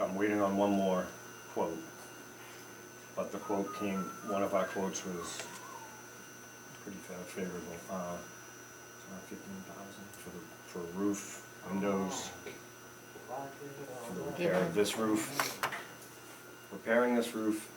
I'm waiting on one more quote. But the quote came, one of our quotes was pretty fa- favorable, uh, fifteen thousand for the, for roof, windows, for the repair of this roof. Repairing this roof,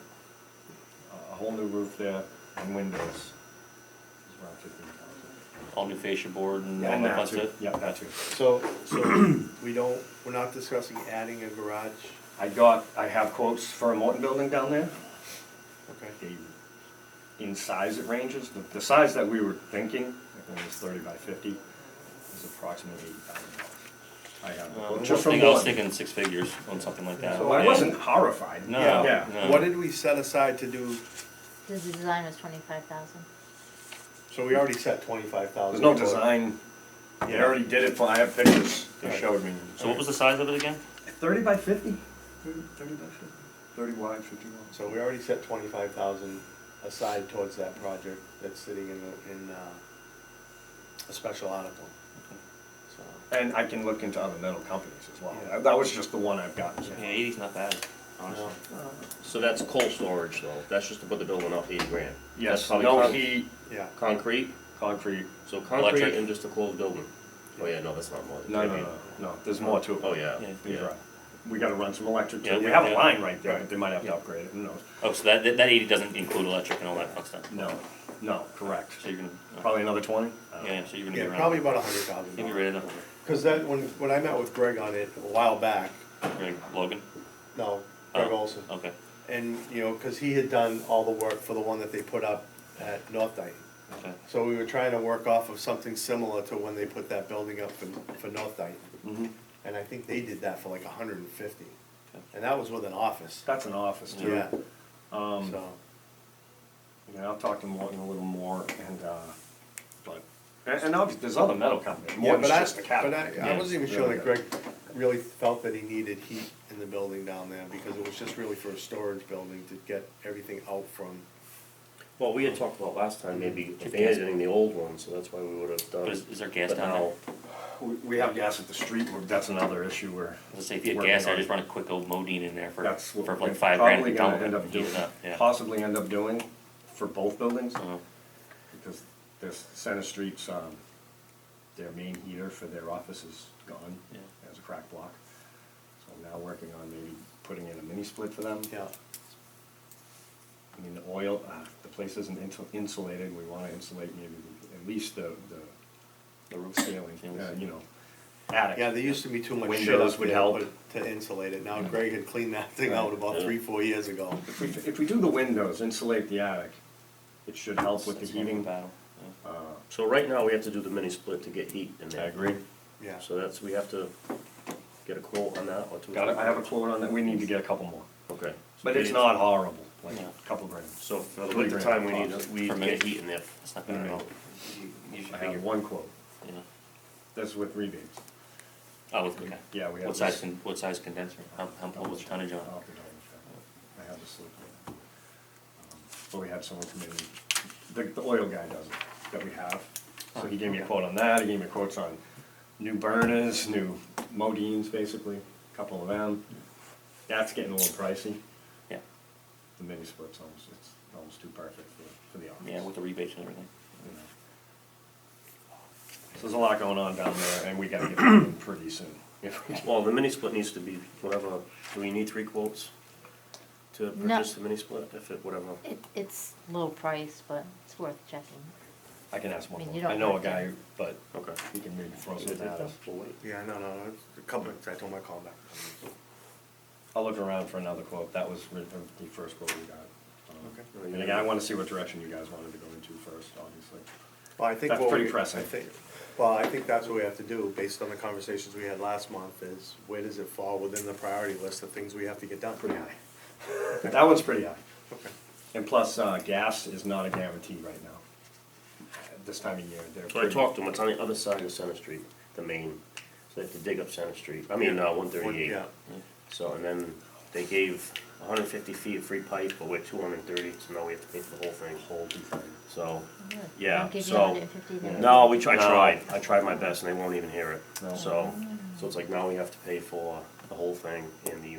uh, a- a whole new roof there, and windows, is around fifteen thousand. all new fascia board and all that fun stuff. Yeah, that too. So, so we don't, we're not discussing adding a garage, I got, I have quotes for a Morton building down there. okay? the, in size it ranges, the, the size that we were thinking, I think it was thirty by fifty, is approximately eighty thousand dollars. I have, Uh, well, I just from think I was one, thinking six figures on something like that. so I Yeah. wasn't horrified. No, Yeah. no. What did we set aside to do, The design was twenty-five thousand. so we already set twenty-five There's thousand. no design, I Yeah. already did it, for- I have pictures, they Alright. showed me. So what was the size of it again? Thirty by fifty? Thirty by fifty. Thirty wide, fifty long. So we already set twenty-five thousand aside towards that project that's sitting in, the- in, uh, a special article. So, And I can look into other metal companies as well, Yeah. That- that was just the one I've gotten. so. Yeah, eighty's not bad, honestly. no. So that's cold storage though, that's just to put the building up eighty grand. That's Yes, probably no con- heat, yeah, Concrete, concrete, so concrete Electric. and just a closed building. Oh yeah, no, that's not more. than no, no, 50. no, Uh, no, there's more to it. Oh yeah, Yeah. He's right. We gotta run some electric Yeah, too. We we- have a yeah. line right there, but they might have to upgrade it, who knows? Oh, so that, that eighty doesn't include electric and all that fun stuff? No, no, correct. So you're gonna, uh, Probably another twenty? yeah, so you're gonna be yeah, around. probably about a hundred thousand. You'll be right at Cause that, when, when I met with Greg on it a while back, Greg Logan? no, Greg Oh, Olson. Okay, And, you know, cause he had done all the work for the one that they put up at North Dyton. okay. So we were trying to work off of something similar to when they put that building up for, for North Dyton. Mhm. And I think they did that for like hundred and fifty, and that was with an office, That's an office too. yeah, Um, so, you know, I'll talk to Morton a little more and, uh, but, and, and obviously, there's other metal companies. yeah, Morton's but I, just a but cabinet. I, I wasn't even sure Really that Greg really felt that he needed heat in the building down there, because it was just really for a storage building to get everything out from, Well, we had talked about last time, maybe Check gas. abandoning the old one, so that's why we would have done. But is, is there gas Uh, But down there? now, We, we have gas at the street, we're- that's another issue where. Let's say if you had working gas, I on- just run a quick old Modine in there for, That's what for we're like five grand. probably and gonna dump it end up up and heat it doing- up, yeah. Possibly end up doing for both buildings. Uh-huh. Because this Center Street's, um, their main heater for their office is gone. Yeah. As a crack block. So I'm now working on maybe putting in a mini split for them. yeah. I mean, the oil, uh, the place isn't insul- insulated, we wanna insulate maybe the- at least the, the. The roof ceiling, uh, you know, attic. Yeah, there used to be too much shit Windows up would there help. put- to insulate it, now Greg had cleaned that thing out about three, four years ago. If we, if we do the windows, insulate the attic, it should help with the That's one heating. battle, yeah. So right now, we have to do the mini split to get heat in I there. agree. Yeah, So that's, we have to get a quote on that or two. Got it, I have a quote on that, we need to get a couple more, Okay. but it's not horrible, like Yeah. a couple grams. So for the winter time, we need, to- we need Per to minute. get heat in there. That's not bad at all. You- You should I figure, have one quote, you know, that's with rebates. oh, with- okay. Yeah, we have What this- Oh. size, con- what size condenser, how, how, what was tonnage on? I'll have to double check. I have the slip there. Um, But we had someone come in, the, the oil guy does it, that we have, so he gave me a quote on that, he gave me quotes on new burners, new modines, basically, a couple of them. That's getting a little pricey, Yeah, the mini split's almost, it's almost too perfect for, for the office. yeah, with the rebates and everything. you know. So there's a lot going on down there, and we gotta get them pretty soon. If we- Well, the mini split needs to be whatever, do we need three quotes to No. purchase the mini split, if it, whatever? It, it's low price, but it's worth checking. I can ask I one mean, you more, don't I know a work guy, there. but Okay. he can maybe throw some at us. yeah, no, no, it's a couple minutes, I told my call back. I'll look around for another quote, that was re- the the first quote we got. Um, Okay. And again, I wanna see what direction you guys wanted to go into first, obviously. Well, I think That's what pretty we- pressing. I think, well, I think that's what we have to do, based on the conversations we had last month, is where does it fall within the priority list of things we have to get done? Pretty high. That one's pretty high. Okay. And plus, uh, gas is not a guarantee right now. At This time of year, they're So I pretty. talked to him, it's on the other side of Center Street, the main, so they have to dig up Center Street, I mean, uh, one thirty-eight. Yeah, So, and then they gave hundred and fifty feet of free pipe, but we're two hundred and thirty, so now we have to pay for the whole thing. Whole So, Really, they Yeah, don't give you so- 150 there? no, we tried, I No. tried, I tried my best and they won't even hear it, No. so, so it's like now we have to pay for the whole thing and the